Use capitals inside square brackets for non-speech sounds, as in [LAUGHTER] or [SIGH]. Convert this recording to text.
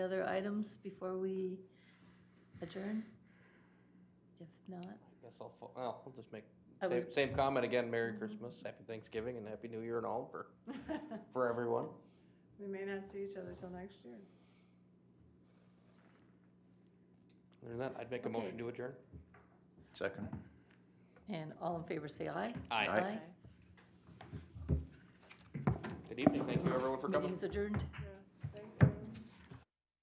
Other items before we adjourn? If not, Guess I'll, fo- well, I'll just make, I was, same, same comment again, Merry Christmas, Happy Thanksgiving, and Happy New Year and all [LAUGHS] for, for everyone. We may not see each other till next year. Other than that, I'd make a Okay. motion to adjourn. Second. and all in favor say aye. Aye. Good evening, thank you everyone for coming. Meeting's adjourned.